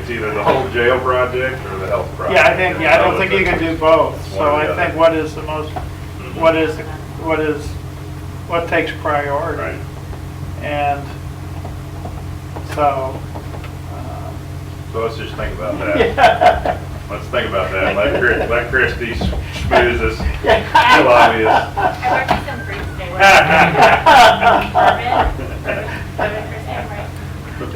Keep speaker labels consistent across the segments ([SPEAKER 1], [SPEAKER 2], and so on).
[SPEAKER 1] it's either the whole jail project or the health project.
[SPEAKER 2] Yeah, I think, yeah, I don't think you can do both,
[SPEAKER 1] It's one
[SPEAKER 2] so
[SPEAKER 1] or the
[SPEAKER 2] I
[SPEAKER 1] other. Mm-hmm.
[SPEAKER 2] think what is the most, what is, what is, what takes
[SPEAKER 1] Right.
[SPEAKER 2] priority? And so, uh, um,
[SPEAKER 1] So let's just think about that.
[SPEAKER 2] yeah.
[SPEAKER 1] Let's think about that. Let Chris, let Christie schmooze us.
[SPEAKER 2] Yeah.
[SPEAKER 1] She'll obvious.
[SPEAKER 3] I worked with some groups today.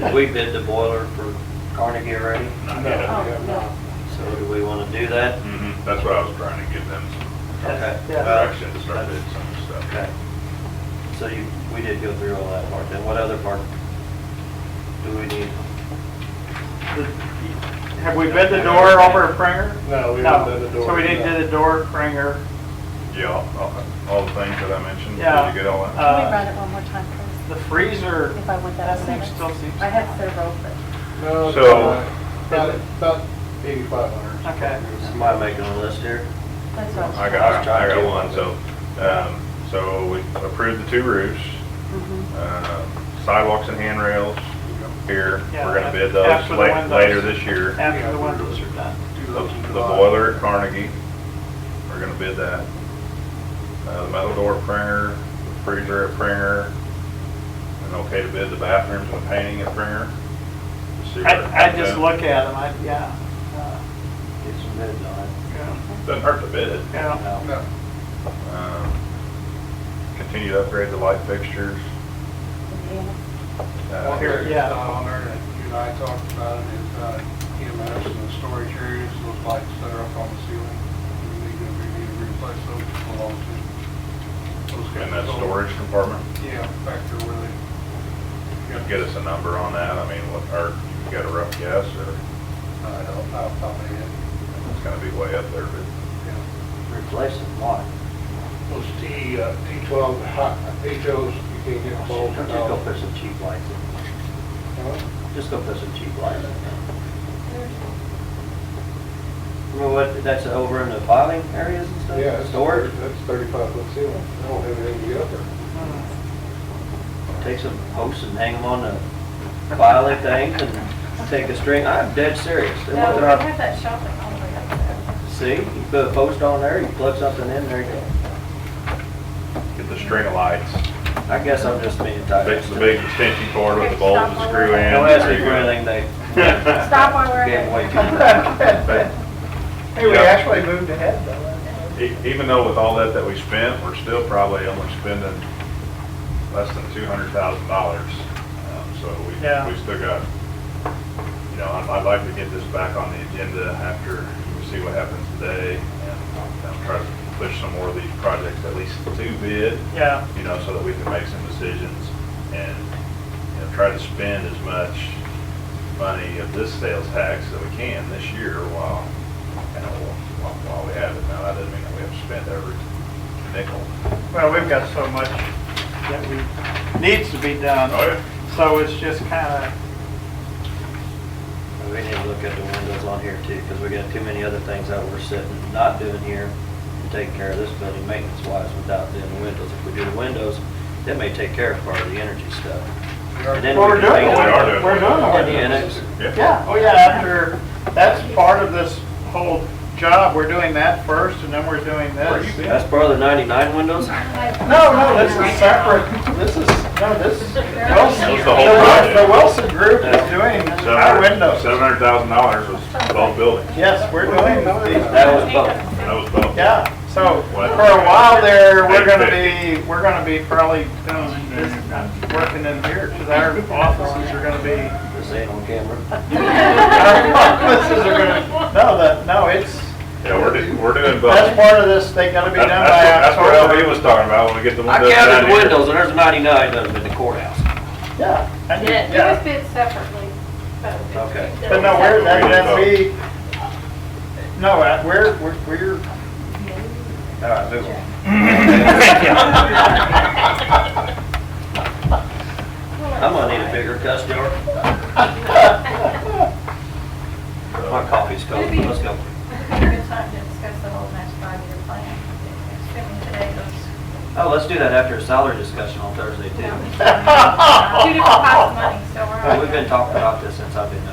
[SPEAKER 4] Did we bid the boiler for Carnegie already?
[SPEAKER 1] Not yet.
[SPEAKER 5] Uh,
[SPEAKER 4] So do we want to do that?
[SPEAKER 1] Mhm. That's what I was trying to give them some
[SPEAKER 4] Okay.
[SPEAKER 2] Yeah.
[SPEAKER 1] direction to start doing some
[SPEAKER 4] Okay.
[SPEAKER 1] stuff.
[SPEAKER 4] So you, we did go through all that part. Then what other part do we need?
[SPEAKER 2] Have we bid the door over at Pringer?
[SPEAKER 5] No, we
[SPEAKER 2] No.
[SPEAKER 5] haven't done the door.
[SPEAKER 2] So we didn't do the door at Pringer.
[SPEAKER 1] Yeah, all- all, all the things that I mentioned.
[SPEAKER 2] Yeah.
[SPEAKER 1] Did you get all that?
[SPEAKER 2] Uh,
[SPEAKER 6] Can we run it one more time, please?
[SPEAKER 2] The freezer,
[SPEAKER 6] If I went that
[SPEAKER 2] That
[SPEAKER 6] way.
[SPEAKER 2] seems- still seems-
[SPEAKER 6] I had several, but
[SPEAKER 5] No, it's
[SPEAKER 1] So-
[SPEAKER 5] about- about, about eighty-five hundred.
[SPEAKER 2] Okay.
[SPEAKER 4] Somebody making a list here?
[SPEAKER 6] that's all.
[SPEAKER 1] I got, I got one, so, um, so we approved the two roofs,
[SPEAKER 6] Mhm.
[SPEAKER 1] um, sidewalks and handrails here,
[SPEAKER 2] Yeah,
[SPEAKER 1] we're gonna bid
[SPEAKER 2] after
[SPEAKER 1] those
[SPEAKER 2] the
[SPEAKER 1] la-
[SPEAKER 2] windows.
[SPEAKER 1] later this year.
[SPEAKER 2] after the windows are done.
[SPEAKER 1] The the boiler at Carnegie, we're gonna bid that. Uh, the metal door at Pringer, the freezer at Pringer, and okay to bid the bathrooms and painting at Pringer. Just see where it
[SPEAKER 2] I, I
[SPEAKER 1] comes
[SPEAKER 2] just
[SPEAKER 1] out.
[SPEAKER 2] look at them, I, yeah. uh,
[SPEAKER 4] Get some bids on it.
[SPEAKER 2] yeah,
[SPEAKER 1] Doesn't hurt to bid it.
[SPEAKER 2] Yeah,
[SPEAKER 4] No.
[SPEAKER 1] Uh,
[SPEAKER 5] No,
[SPEAKER 1] Um, Continue to upgrade the light fixtures. Uh,
[SPEAKER 5] one
[SPEAKER 2] here,
[SPEAKER 5] here,
[SPEAKER 2] yeah.
[SPEAKER 5] yeah, on there that you and I talked about it is, uh, EMS and the storage areas, those lights that are up on the ceiling. We need to, we need to replace those along to. those
[SPEAKER 1] In
[SPEAKER 5] guys.
[SPEAKER 1] that storage compartment?
[SPEAKER 5] Yeah, back there where they.
[SPEAKER 1] Get us a number on that, I mean, what, or you got a rough guess, or
[SPEAKER 5] uh, I don't, know will top of my head.
[SPEAKER 1] it's gonna be way up there, but
[SPEAKER 5] Yeah.
[SPEAKER 4] Replace them, what?
[SPEAKER 5] Those T, uh, T12 hot HOs, you can't get them both.
[SPEAKER 4] Just go put some cheap lights in.
[SPEAKER 5] Huh?
[SPEAKER 4] Just go put some cheap lights in. I mean, what, that's over in the filing areas and stuff?
[SPEAKER 5] Yeah,
[SPEAKER 4] Storage?
[SPEAKER 5] storage, that's 35 foot ceiling. I don't have anything to get up there.
[SPEAKER 4] Take some posts and hang them on the filing things and take a string. I'm dead serious. It
[SPEAKER 6] No,
[SPEAKER 4] wasn't
[SPEAKER 6] we
[SPEAKER 4] our-
[SPEAKER 6] have that shopping all the way up there.
[SPEAKER 4] See, you put a post on there, you plug something in there, you go.
[SPEAKER 1] get the string of lights,
[SPEAKER 4] I guess I'm just being tired.
[SPEAKER 1] fix the big extension cord with the bolts and screw in.
[SPEAKER 4] Don't ask me for anything they
[SPEAKER 6] Stop while we're
[SPEAKER 4] gave away.
[SPEAKER 6] at
[SPEAKER 4] too
[SPEAKER 6] it.
[SPEAKER 4] much.
[SPEAKER 2] Hey, we
[SPEAKER 1] Yeah.
[SPEAKER 2] actually moved ahead though.
[SPEAKER 1] E- Even though with all that that we spent, we're still probably only spending less than two hundred thousand dollars. Um, So we,
[SPEAKER 2] Yeah.
[SPEAKER 1] we still got, you know, I'd, I'd like to get this back on the agenda after we see what happens today and um, try to push some more of these projects at least to bid,
[SPEAKER 2] Yeah,
[SPEAKER 1] you know, so that we can make some decisions and, you know, try to spend as much money of this sales tax that we can this year while, you know, while, while we have it. Now, that doesn't mean that we have to spend every nickel.
[SPEAKER 2] well, we've got so much that we, needs to be done.
[SPEAKER 1] Oh,
[SPEAKER 2] So it's just kind
[SPEAKER 4] We need to look at the windows on here too, because we got too many other things that we're sitting, not doing here, to take care of this building maintenance wise without doing the windows. If we do the windows, that may take care of part of the energy stuff. And
[SPEAKER 2] of,
[SPEAKER 4] then
[SPEAKER 2] well, we're
[SPEAKER 4] we can
[SPEAKER 2] doing,
[SPEAKER 4] hang
[SPEAKER 1] We
[SPEAKER 4] it
[SPEAKER 1] are
[SPEAKER 2] it.
[SPEAKER 1] doing
[SPEAKER 2] we're
[SPEAKER 1] it.
[SPEAKER 2] doing.
[SPEAKER 4] on
[SPEAKER 2] it.
[SPEAKER 4] the annex.
[SPEAKER 1] yeah.
[SPEAKER 2] Yeah, oh yeah, after, that's part of this whole job, we're doing that first and then we're doing
[SPEAKER 1] Where you
[SPEAKER 2] this.
[SPEAKER 1] been?
[SPEAKER 4] That's part of the ninety-nine windows?
[SPEAKER 2] No, no, this is separate, this is, no, this is Wilson.
[SPEAKER 1] was the whole project.
[SPEAKER 2] The Wilson Group is doing our windows.
[SPEAKER 1] Seven hundred thousand dollars was both buildings.
[SPEAKER 2] Yes, we're doing these.
[SPEAKER 4] That was both.
[SPEAKER 1] That was both.
[SPEAKER 2] Yeah, so for a while there, we're gonna be, we're gonna be probably doing this, working in here, because our offices are gonna be,
[SPEAKER 4] This ain't on camera.
[SPEAKER 2] our offices are gonna, no, the, no, it's,
[SPEAKER 1] Yeah, we're doing, we're doing both.
[SPEAKER 2] that's part of this, they gotta be
[SPEAKER 1] That-
[SPEAKER 2] done
[SPEAKER 1] That's,
[SPEAKER 2] by
[SPEAKER 1] what- that's what LB
[SPEAKER 2] October.
[SPEAKER 1] was talking about when we get the
[SPEAKER 4] I
[SPEAKER 1] windows down
[SPEAKER 4] counted the
[SPEAKER 1] here.
[SPEAKER 4] windows and there's ninety-nine of them in the courthouse.
[SPEAKER 2] Yeah, I did,
[SPEAKER 6] Yeah, Oh. it was
[SPEAKER 2] yeah,
[SPEAKER 6] bid separately. but it was
[SPEAKER 4] Okay.
[SPEAKER 6] bid
[SPEAKER 2] but no, we're, that,
[SPEAKER 1] We did
[SPEAKER 2] that we, no, uh, we're, we're, we're,
[SPEAKER 4] All
[SPEAKER 2] Uh,
[SPEAKER 4] right, move on. I'm gonna need a bigger cuss jar. My coffee's cold, let's go.
[SPEAKER 6] It'd be a good time to discuss the whole next five-year plan, assuming today goes.
[SPEAKER 4] Oh, let's do that after a salary discussion on Thursday
[SPEAKER 6] Two
[SPEAKER 4] too.
[SPEAKER 6] different pots of money, so we're.
[SPEAKER 4] We've been talking about this since I've been